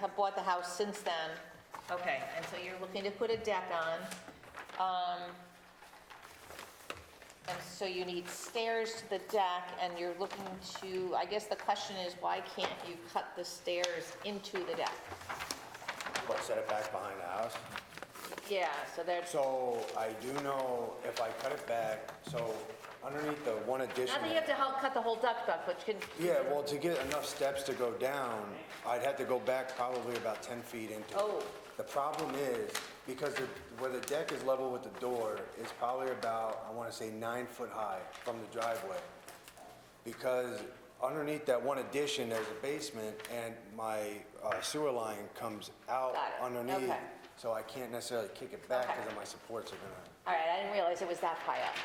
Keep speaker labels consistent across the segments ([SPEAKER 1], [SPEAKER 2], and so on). [SPEAKER 1] have bought the house since then. Okay, and so you're looking to put a deck on. Um, And so you need stairs to the deck, and you're looking to, I guess the question is, why can't you cut the stairs into the deck?
[SPEAKER 2] What, set it back behind the house?
[SPEAKER 1] Yeah, so there's,
[SPEAKER 2] So I do know if I cut it back, so underneath the one addition.
[SPEAKER 1] not that you have to help cut the whole duck duck, but you can,
[SPEAKER 2] Yeah, well, to get enough steps to go down, I'd have to go back probably about 10 feet into it.
[SPEAKER 1] Oh.
[SPEAKER 2] The problem is, because the- where the deck is level with the door is probably about, I want to say, nine foot high from the driveway. Because underneath that one addition, there's a basement, and my uh, sewer line comes out
[SPEAKER 1] Got it,
[SPEAKER 2] underneath.
[SPEAKER 1] okay.
[SPEAKER 2] So I can't necessarily kick it back
[SPEAKER 1] Okay.
[SPEAKER 2] because my supports are gonna,
[SPEAKER 1] all right, I didn't realize it was that high up.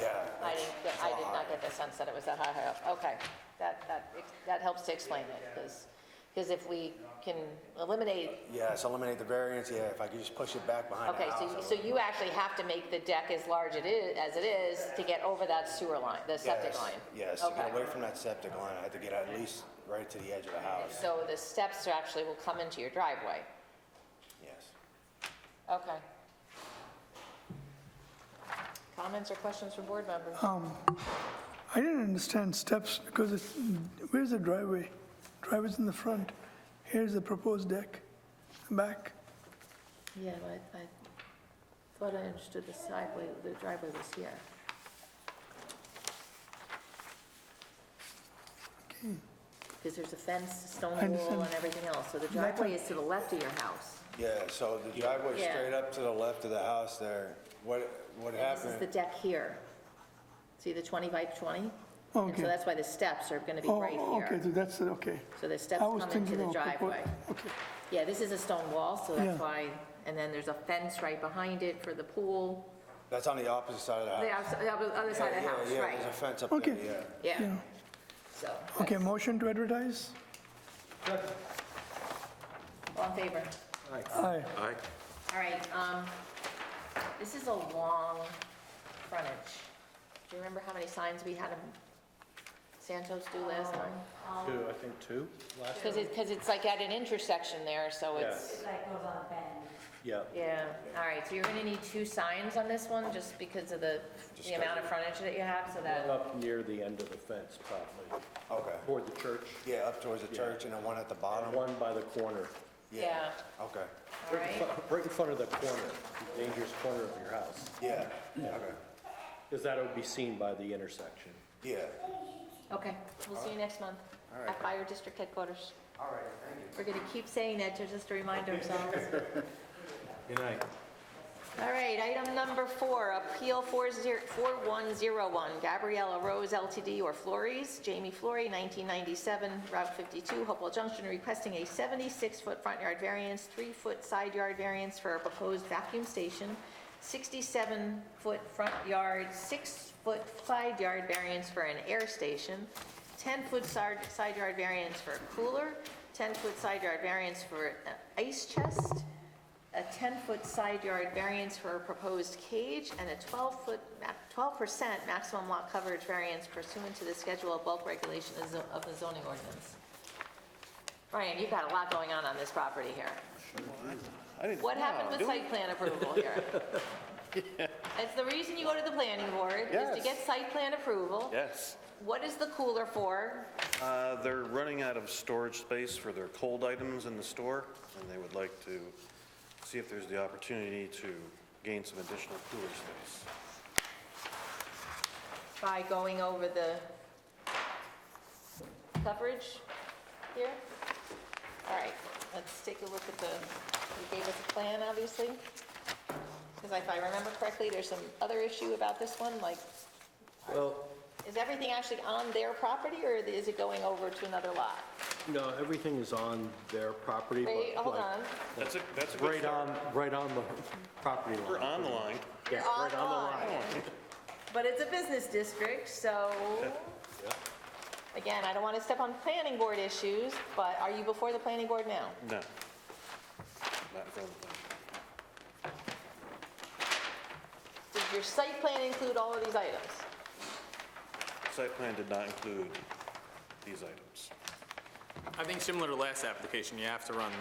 [SPEAKER 2] yeah.
[SPEAKER 1] I
[SPEAKER 2] it's-
[SPEAKER 1] didn't, get-
[SPEAKER 2] it's
[SPEAKER 1] I
[SPEAKER 2] all
[SPEAKER 1] did
[SPEAKER 2] high.
[SPEAKER 1] not get the sense that it was that high high up. Okay, that, that, that helps to explain it, because, if we can eliminate,
[SPEAKER 2] Yes, eliminate the variance, yeah, if I could just push it back behind the
[SPEAKER 1] okay,
[SPEAKER 2] house.
[SPEAKER 1] so,
[SPEAKER 2] I
[SPEAKER 1] you-
[SPEAKER 2] would.
[SPEAKER 1] so you actually have to make the deck as large it is, as it is, to get over that sewer line, the septic
[SPEAKER 2] Yes,
[SPEAKER 1] line?
[SPEAKER 2] Yes, to
[SPEAKER 1] Okay.
[SPEAKER 2] get away from that septic line, I had to get at least right to the edge of the house,
[SPEAKER 1] So the steps are actually will come into your driveway?
[SPEAKER 2] yes.
[SPEAKER 1] Okay. Comments or questions from board members?
[SPEAKER 3] I didn't understand steps because it's, where's the driveway? Driveway's in the front. Here's the proposed deck, back.
[SPEAKER 1] Yeah, I, I thought I understood the sideway, the driveway was here. Because there's a fence,
[SPEAKER 3] I
[SPEAKER 1] stone
[SPEAKER 3] understand.
[SPEAKER 1] wall and everything else, so the
[SPEAKER 3] Like
[SPEAKER 1] driveway
[SPEAKER 3] a-
[SPEAKER 1] is to the left of your house.
[SPEAKER 2] Yeah, so the driveway
[SPEAKER 1] Yeah.
[SPEAKER 2] straight up to the left of the house there, what, what
[SPEAKER 1] This is the
[SPEAKER 2] happened?
[SPEAKER 1] deck here. See the 20 by 20? And
[SPEAKER 3] Okay.
[SPEAKER 1] so that's why the steps are gonna be
[SPEAKER 3] Oh,
[SPEAKER 1] right
[SPEAKER 3] okay, so
[SPEAKER 1] here.
[SPEAKER 3] that's, it, okay.
[SPEAKER 1] So the steps
[SPEAKER 3] I was
[SPEAKER 1] come into
[SPEAKER 3] thinking
[SPEAKER 1] the
[SPEAKER 3] of.
[SPEAKER 1] driveway.
[SPEAKER 3] propo- Okay,
[SPEAKER 1] Yeah, this is a stone wall, so
[SPEAKER 3] Yeah.
[SPEAKER 1] that's why, and then there's a fence right behind it for the pool.
[SPEAKER 2] That's on the opposite side of the house.
[SPEAKER 1] The outs- the other other side of the
[SPEAKER 2] Yeah,
[SPEAKER 1] house,
[SPEAKER 2] yeah,
[SPEAKER 1] right.
[SPEAKER 2] There's a fence up there,
[SPEAKER 3] Okay.
[SPEAKER 2] yeah.
[SPEAKER 1] Yeah,
[SPEAKER 3] yeah.
[SPEAKER 1] so,
[SPEAKER 3] Okay, motion to advertise?
[SPEAKER 1] all in favor?
[SPEAKER 3] Aye.
[SPEAKER 1] All right, um, this is a long frontage. Do you remember how many signs we had in Santos do last time?
[SPEAKER 4] Two, I think two last,
[SPEAKER 1] Because it, because it's like at an intersection there, so it's,
[SPEAKER 4] yeah.
[SPEAKER 1] yeah. All right, so you're gonna need two signs on this one, just because of the, the amount of frontage that you have, so that,
[SPEAKER 4] Up near the end of the fence probably,
[SPEAKER 2] Okay,
[SPEAKER 4] toward the church,
[SPEAKER 2] yeah, up towards the church and then one at the bottom?
[SPEAKER 4] one by the corner.
[SPEAKER 1] yeah,
[SPEAKER 2] Okay,
[SPEAKER 1] all
[SPEAKER 4] Right in
[SPEAKER 1] right?
[SPEAKER 4] front- Right in front of the corner, the dangerous corner of your house,
[SPEAKER 2] yeah, okay,
[SPEAKER 4] because that'll be seen by the intersection.
[SPEAKER 2] yeah.
[SPEAKER 1] Okay, we'll see you next month at Fire District Headquarters.
[SPEAKER 2] All right, thank you.
[SPEAKER 1] We're gonna keep saying that, to just to remind ourselves.
[SPEAKER 4] Good night.
[SPEAKER 1] All right, item number four, Appeal 40 4101, Gabriella Rose LTD or Flores, Jamie Flory, 1997, Route 52, Hopewell Junction, requesting a 76-foot front yard variance, 3-foot side yard variance for a proposed vacuum station, 67-foot front yard, 6-foot side yard variance for an air station, 10-foot side side yard variance for a cooler, 10-foot side yard variance for an ice chest, a 10-foot side yard variance for a proposed cage, and a 12-foot, ma- 12% maximum lot coverage variance pursuant to the schedule of bulk regulation of zo- of the zoning ordinance. Brian, you've got a lot going on on this property here. What happened with site plan approval here? It's the reason you go to the planning board, is to
[SPEAKER 5] Yes.
[SPEAKER 1] get site plan approval.
[SPEAKER 5] Yes.
[SPEAKER 1] What is the cooler for?
[SPEAKER 5] Uh, They're running out of storage space for their cold items in the store, and they would like to see if there's the opportunity to gain some additional cooler space.
[SPEAKER 1] By going over the coverage here? All right, let's take a look at the, you gave us a plan, obviously. Because if I remember correctly, there's some other issue about this one, like,
[SPEAKER 4] Well,
[SPEAKER 1] is everything actually on their property, or is it going over to another lot?
[SPEAKER 4] no, everything is on their property. but
[SPEAKER 1] Wait, hold
[SPEAKER 4] like,
[SPEAKER 1] on.
[SPEAKER 5] That's a, that's a good
[SPEAKER 4] Right
[SPEAKER 5] start.
[SPEAKER 4] on, right on the property line.
[SPEAKER 5] We're on the line.
[SPEAKER 4] Yeah,
[SPEAKER 1] You're on
[SPEAKER 4] right
[SPEAKER 1] the But it's a business district, so, again, I don't want to step on planning board issues, but are you before the planning board now?
[SPEAKER 5] No. Not in front of the line.
[SPEAKER 1] Does your site plan include all of these items?
[SPEAKER 5] Site plan did not include these items.
[SPEAKER 6] I think similar to last application, you have to run